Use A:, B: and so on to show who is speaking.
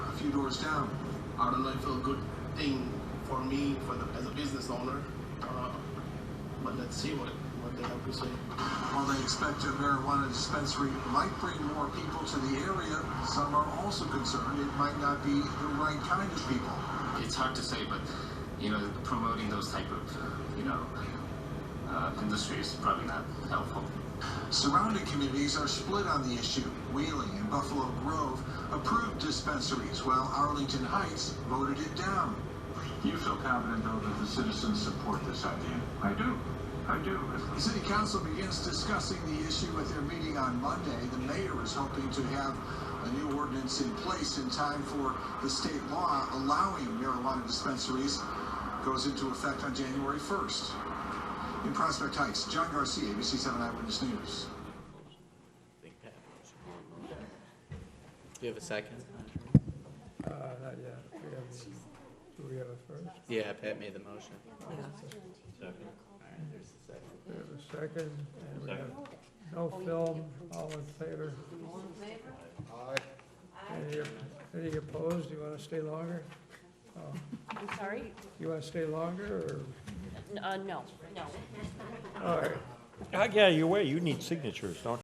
A: few doors down. I don't know if it's a good thing for me for the, as a business owner, uh, but let's see what, what they have to say.
B: While they expect a marijuana dispensary might bring more people to the area, some are also concerned it might not be the right kind of people.
C: it's hard to say, but you know, promoting those type of uh, you know uh, industries is probably not helpful.
B: Surrounding communities are split on the issue. Wheeling and Buffalo Grove approved dispensaries, while Arlington Heights voted it down.
D: You feel confident, though, that the citizens support this idea? I do. I do.
B: The City Council begins discussing the issue at their meeting on Monday. The mayor is hoping to have a new ordinance in place in time for the state law allowing marijuana dispensaries goes into effect on January 1st. In Prospect Heights, John Garcia, ABC 7 Eyewitness News.
E: Big Pat. Do you have a second?
F: Uh, not yet. We have, do we have a first?
E: Yeah, Pat made the motion.
F: We have a second, and we have no film. All in favor? Aye. Any opposed? Do you want to stay longer?
G: I'm sorry?
F: You want to stay longer,
G: N- Uh, no, no.
F: or, all right.
H: I got your way. You need signatures, don't you?